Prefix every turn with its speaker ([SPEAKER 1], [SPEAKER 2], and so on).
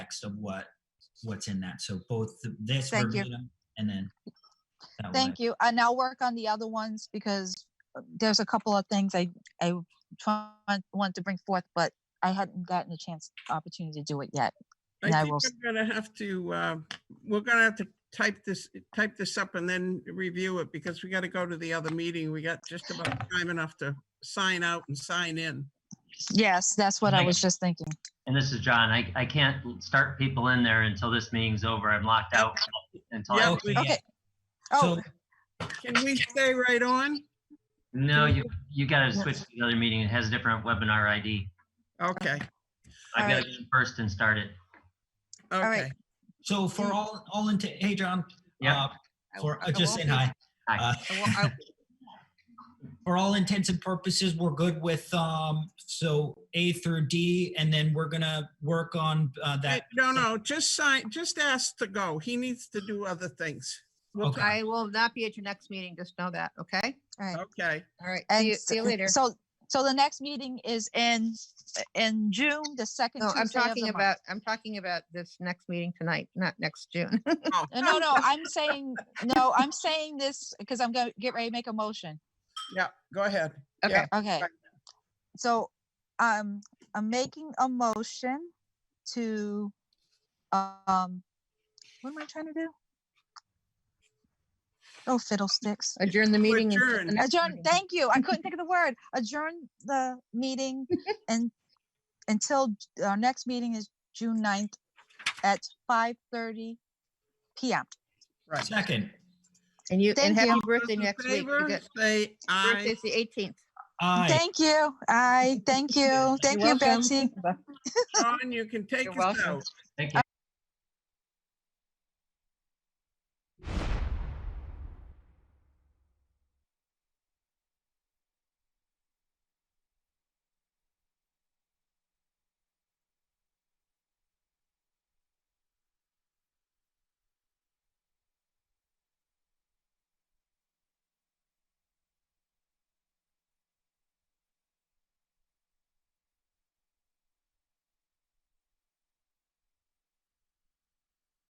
[SPEAKER 1] text of what, what's in that. So both th- this
[SPEAKER 2] Thank you.
[SPEAKER 1] verbatim and then. that one.
[SPEAKER 2] Thank you. And I'll work on the other ones because uh, there's a couple of things I, I try- want to bring forth, but I hadn't gotten a chance, opportunity to do it yet. And I
[SPEAKER 3] I think
[SPEAKER 2] will s-
[SPEAKER 3] we're gonna have to, uh, we're gonna have to type this, type this up and then review it because we gotta go to the other meeting. We got just about time enough to sign out and sign in.
[SPEAKER 2] Yes, that's what I
[SPEAKER 4] Right.
[SPEAKER 2] was just thinking.
[SPEAKER 4] And this is John. I, I can't start people in there until this meeting's over. I'm locked out until, I-
[SPEAKER 3] Yeah.
[SPEAKER 1] Okay,
[SPEAKER 2] Okay.
[SPEAKER 1] So,
[SPEAKER 2] Oh,
[SPEAKER 3] Can we stay right on?
[SPEAKER 4] no, you, you gotta switch to the other meeting. It has a different webinar ID.
[SPEAKER 3] Okay,
[SPEAKER 4] I've gotta
[SPEAKER 2] Alright.
[SPEAKER 4] go in first and start it.
[SPEAKER 3] okay.
[SPEAKER 2] right.
[SPEAKER 1] so for all, all into, hey, John.
[SPEAKER 4] Yeah.
[SPEAKER 1] uh, For,
[SPEAKER 2] I-
[SPEAKER 1] uh,
[SPEAKER 2] I
[SPEAKER 1] just saying
[SPEAKER 2] won't be-
[SPEAKER 1] hi.
[SPEAKER 4] Hi.
[SPEAKER 1] Uh,
[SPEAKER 2] I won't- I-
[SPEAKER 1] for all intents and purposes, we're good with, um, so A through D, and then we're gonna work on, uh, that.
[SPEAKER 3] No, no, just sign, just ask to go. He needs to do other things. We'll-
[SPEAKER 1] Okay.
[SPEAKER 5] I will not be at your next meeting, just know that, okay?
[SPEAKER 2] all right.
[SPEAKER 3] Okay,
[SPEAKER 5] All right, see you,
[SPEAKER 2] And
[SPEAKER 5] see you later.
[SPEAKER 2] so, so the next meeting is in, in June, the second
[SPEAKER 5] No,
[SPEAKER 2] Tuesday
[SPEAKER 5] Oh, I'm
[SPEAKER 2] of the
[SPEAKER 5] talking
[SPEAKER 2] month.
[SPEAKER 5] about, I'm talking about this next meeting tonight, not next June.
[SPEAKER 3] Oh,
[SPEAKER 2] Uh, No, no, I'm saying, no, I'm saying this because I'm gonna get ready to make a motion.
[SPEAKER 3] yeah, go ahead.
[SPEAKER 5] Okay,
[SPEAKER 2] Okay.
[SPEAKER 3] Right.
[SPEAKER 2] So, um, I'm making a motion to, um, what am I trying to do? Oh fiddlesticks.
[SPEAKER 5] adjourn the meeting. until the
[SPEAKER 3] Adjourn.
[SPEAKER 5] next
[SPEAKER 2] Adjourn,
[SPEAKER 5] meeting.
[SPEAKER 2] thank you. I couldn't think of the word. Adjourn the meeting and until j- our next meeting is June 9th at five thirty PM.
[SPEAKER 3] Right.
[SPEAKER 1] Second,
[SPEAKER 5] And you,
[SPEAKER 2] Thank
[SPEAKER 5] and
[SPEAKER 2] you.
[SPEAKER 5] happy
[SPEAKER 3] Those
[SPEAKER 5] birthday
[SPEAKER 3] in
[SPEAKER 5] next week.
[SPEAKER 3] favor,
[SPEAKER 5] You get-
[SPEAKER 3] Say aye.
[SPEAKER 5] Birthday's the eighteenth.
[SPEAKER 1] aye.
[SPEAKER 2] Thank you. I, thank you. Thank you,
[SPEAKER 5] welcome.
[SPEAKER 2] Betsy.
[SPEAKER 3] John, you can take
[SPEAKER 5] You're
[SPEAKER 3] us
[SPEAKER 5] welcome.
[SPEAKER 3] out.
[SPEAKER 4] Thank you.